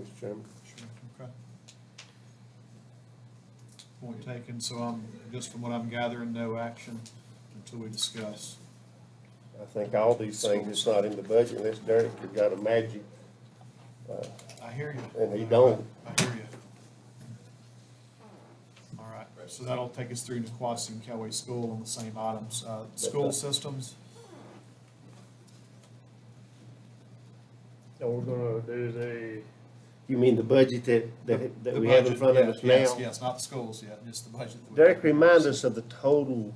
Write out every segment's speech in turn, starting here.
Mr. Chairman. Sure, okay. Point taken, so I'm, just from what I'm gathering, no action until we discuss. I think all these things, it's not in the budget unless Derek has got a magic, uh, I hear you. And he don't. I hear you. All right, so that'll take us through Niquosi and Kelway School on the same items. Uh, School systems, So we're gonna, there's a, you mean the budget that, that, that we have in budget, front of yeah, us Yes, now? yes, not the schools yet, just the budget. that we- Derek, remind us of the total,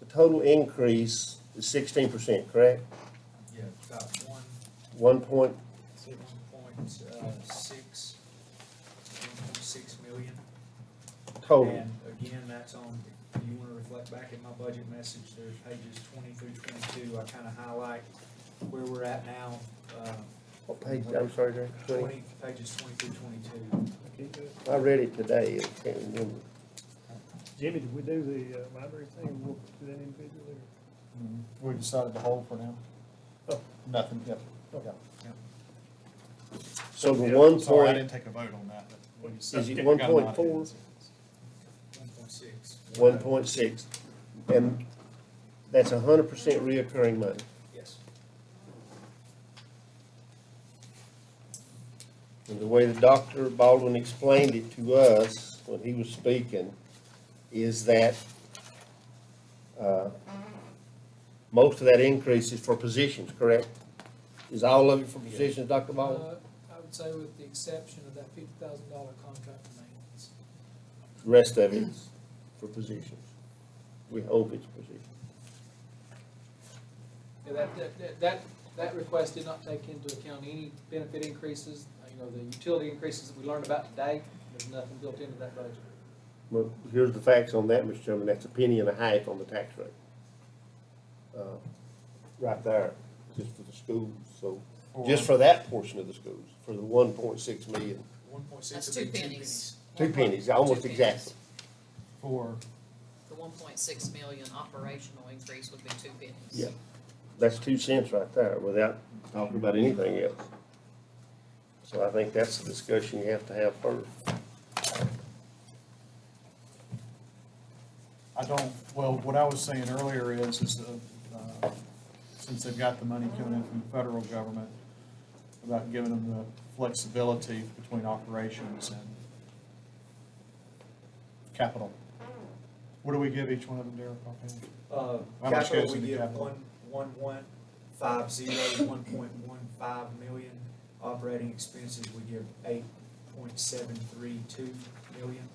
the total increase is sixteen percent, correct? Yeah, about one, One point, say one point, uh, six, one point six million. total, And again, that's on, if you wanna reflect back at my budget message, there's pages twenty through twenty-two, I kinda highlight where we're at now, uh, what page, I'm sorry, Derek, twenty, twenty, pages twenty through twenty-two. I read it today, I can't remember. Jimmy, did we do the uh, library thing, or we'll do that individually? Mhm. We decided to hold for now. Oh. Nothing, yep, yep. So the one Sorry, I point, didn't take a vote on that, but what you said. is I it one got an point idea. four? One point six. One point six, and that's a hundred percent reoccurring money. Yes. And the way the Dr. Baldwin explained it to us when he was speaking is that uh, most of that increase is for positions, correct? Is all of it for positions, Dr. Baldwin? Uh, I would say with the exception of that fifty thousand dollar contract for maintenance. The Rest of it's for positions. We hope it's positions. Yeah, that, that- that, that, that request did not take into account any benefit increases, uh, you know, the utility increases that we learned about today, there's nothing built into that budget. Well, here's the facts on that, Mr. Chairman, that's a penny and a half on the tax rate. Uh, Right there, just for the schools, so, just for that portion of the schools, for the one point six million. One point six. That's two pennies. Two pennies, almost Two exactly. For, The one point six million operational increase would be two pennies. Yeah. That's two cents right there without talking about anything else. So I think that's the discussion you have to have first. I don't, well, what I was saying earlier is, is, uh, uh, since they've got the money coming in from the federal government, about giving them the flexibility between operations and capital. What do we give each one of them, Derek? offhand? Uh, How much goes capital, we into give capital? one, one, one, five, zero, one point one five million. Operating expenses, we give eight point seven three two million.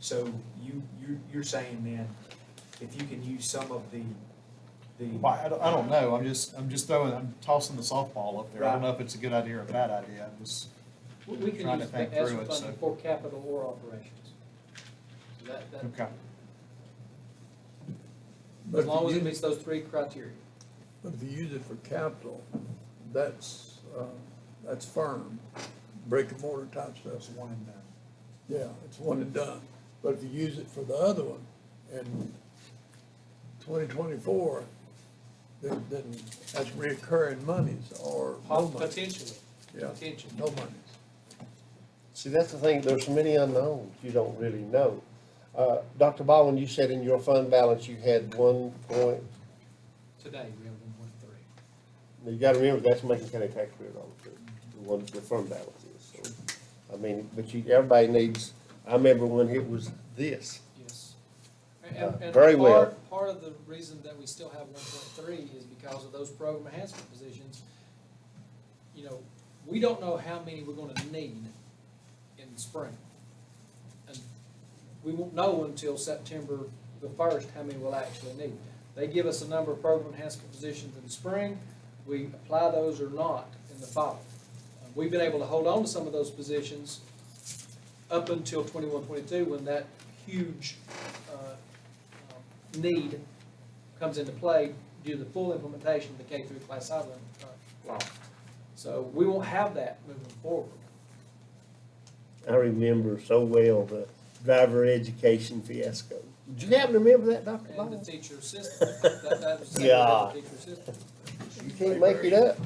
So you, you, you're saying then, if you can use some of the, Well, the, I don't, I don't know, I'm just, I'm just throwing, I'm tossing the softball up there, I don't know if it's a good idea or a bad idea, I'm just, We- We can Trying to use think the ESSER through it, funding so- for capital or operations. So that, that, okay. But as if long as you it use, meets those three criteria. but if you use it for capital, that's, uh, that's firm, brick and mortar type stuff. those one and done. Yeah, it's one and done. But if you use it for the other one in twenty twenty-four, then, then that's reoccurring monies or no money. Potentially, Yeah, potentially. no monies. See, that's the thing, there's many unknowns you don't really know. Uh, Dr. Baldwin, you said in your fund balance you had one point, Today, we have one point three. you gotta remember, that's Macon County tax rate on it, the one, the fund balance is, so. I mean, but you, everybody needs, I remember when it was this. Yes. Uh, And, and very part, well. part of the reason that we still have one point three is because of those program enhancement positions. You know, we don't know how many we're gonna need in the spring. And we won't know until September the first how many we'll actually need. They give us a number of program enhancement positions in the spring, we apply those or not in the fall. Uh, We've been able to hold on to some of those positions up until twenty-one, twenty-two, when that huge, uh, um, need comes into play due to the full implementation of the K through class size limit, uh, law. So we won't have that moving forward. I remember so well the driver education fiasco. Do you happen to remember that, Dr. And the Baldwin? teacher assistant, that, that was. Yeah. Teacher assistant. You can't make it up.